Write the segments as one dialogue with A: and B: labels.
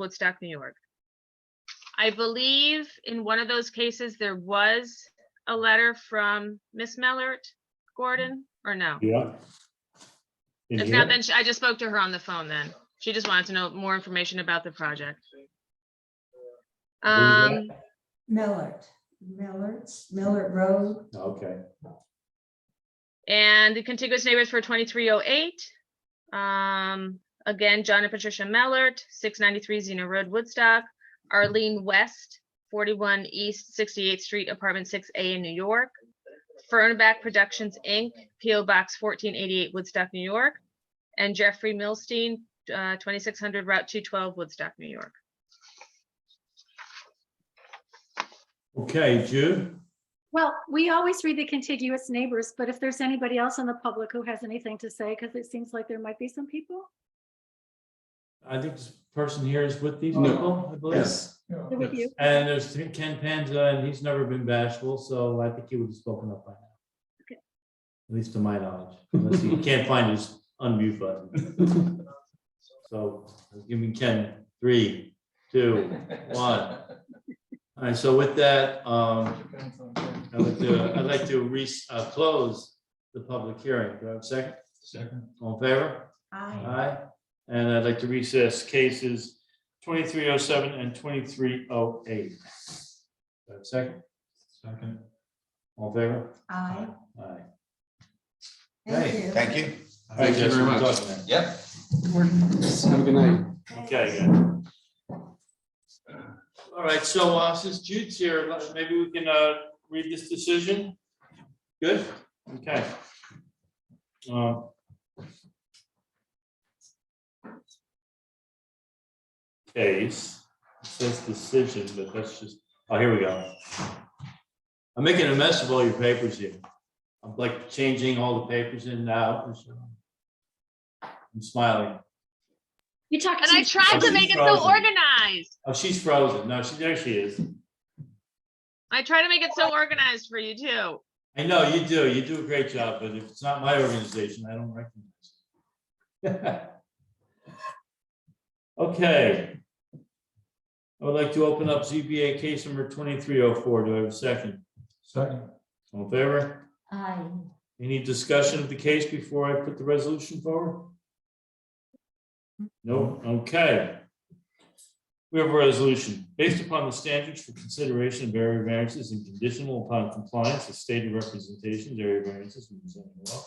A: Woodstock, New York. I believe in one of those cases, there was a letter from Miss Mellert Gordon, or no?
B: Yeah. In
A: It's
B: here?
A: not been, I just spoke to her on the phone then. She just wanted to know more information about the project.
B: Who's that?
A: Um,
C: Millard, Millards, Millard Road,
B: Okay,
A: and the contiguous neighbors for twenty-three oh eight. Um, again, John and Patricia Mellert, six ninety-three Xena Road, Woodstock. Arlene West, forty-one East Sixty-Eighth Street, Apartment six A in New York. Fernback Productions, Inc., PO Box fourteen eighty-eight, Woodstock, New York. And Jeffrey Milstein, uh, twenty-six hundred Route two twelve, Woodstock, New York.
B: okay, Jude,
D: Well, we always read the contiguous neighbors, but if there's anybody else in the public who has anything to say, because it seems like there might be some people.
B: I think this person here is with these
E: No.
B: people, I believe.
E: Yes.
D: Who would you?
B: And there's Ken Panza, and he's never been bashful, so I think he would have spoken up by now.
D: Okay.
B: At least to my knowledge, unless he can't find his unmute button. So, give me Ken, three, two, one. All right, so with that, um, I would, uh, I'd like to re, uh, close the public hearing. Do I have a second? Second. All in favor?
C: I,
B: Aye. And I'd like to recess cases twenty-three oh seven and twenty-three oh eight. Second? Second. All in favor?
C: I,
B: Aye.
C: thank
B: Hey,
C: you.
F: Thank you.
E: Thank you very much.
F: Yep.
E: Have a good night.
B: Okay, good. All right, so uh, since Jude's here, let- maybe we can uh, read this decision? Good? Okay. Um, Case, it says decision, but that's just, oh, here we go. I'm making a mess of all your papers here. I'm like changing all the papers in now. I'm smiling.
D: You talked.
A: And I tried to
B: She's
A: make it so
B: frozen.
A: organized.
B: Oh, she's frozen. No, she, there she is.
A: I try to make it so organized for you too.
B: I know you do. You do a great job, but if it's not my organization, I don't recognize. it. Okay. I would like to open up ZBA case number twenty-three oh four. Do I have a second? Second. All in favor?
C: I,
B: Any discussion of the case before I put the resolution forward? No, okay. We have a resolution. Based upon the standards for consideration of area variances and conditional upon compliance of stated representations, area variances in the zoning law.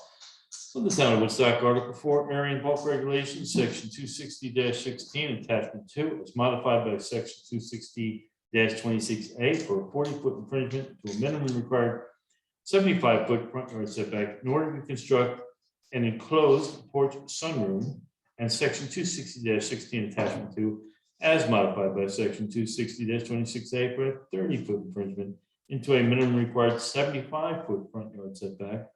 B: So the town of Woodstock, Article Four, area and bulk regulations, section two sixty sixteen, attachment two, is modified by section two sixty twenty-six A for a forty-foot infringement to a minimum required seventy-five foot front yard setback in order to construct an enclosed porch sunroom and section two sixty sixteen attachment two as modified by section two sixty twenty-six A for a thirty foot infringement into a minimum required seventy-five foot front yard setback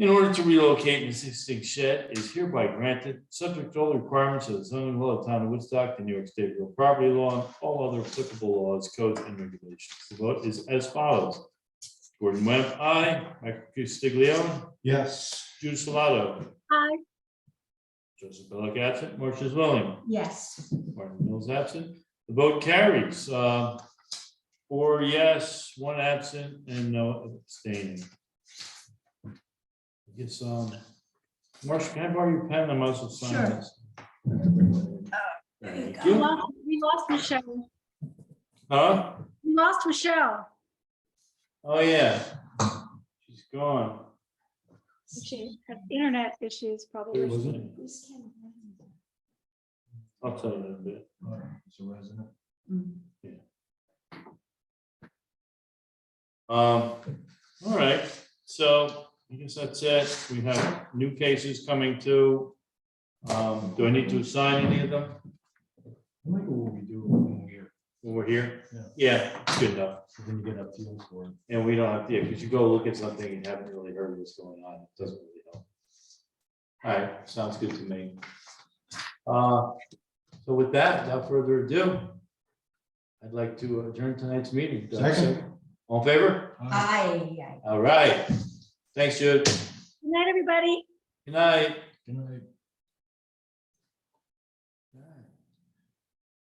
B: in order to relocate an existing shed is hereby granted, subject to all the requirements of the zoning law of the town of Woodstock, the New York State real property law, and all other applicable laws, codes, and regulations. The vote is as follows. Gordon Webb, aye. Michael Custiglione,
E: Yes.
B: Jude Salado,
D: Hi.
B: Joseph Bellak absent, Marcia Zwilling,
C: yes,
B: Martin Mills absent. The vote carries. uh, Four yes, one absent, and no abstaining. I guess, um, Marcia, can I borrow your pen? I might as well sign
C: Sure.
B: this.
C: there you
B: Thank
D: We
B: you.
D: lost- we lost Michelle.
B: Huh?
D: We lost Michelle.
B: Oh, yeah. She's gone.
D: She had internet issues probably.
B: I'll tell you in a bit.
C: Mm.
B: Um, all right, so I guess that's it. We have new cases coming too. Um, do I need to assign any of them?
G: I wonder what we do when we're,
B: when We're here? Yeah, it's good enough.
G: when you get a feel for it.
B: And we don't have, yeah, because you go look at something and haven't really heard what's going on. It doesn't really help. All right, sounds good to me. Uh, so with that, without further ado, I'd like to adjourn tonight's meeting. Do I have a
E: Second.
B: All in favor?
C: Uh, I, I.
B: All right. Thanks, Jude.
D: Good night, everybody.
B: Good night.
G: Good night.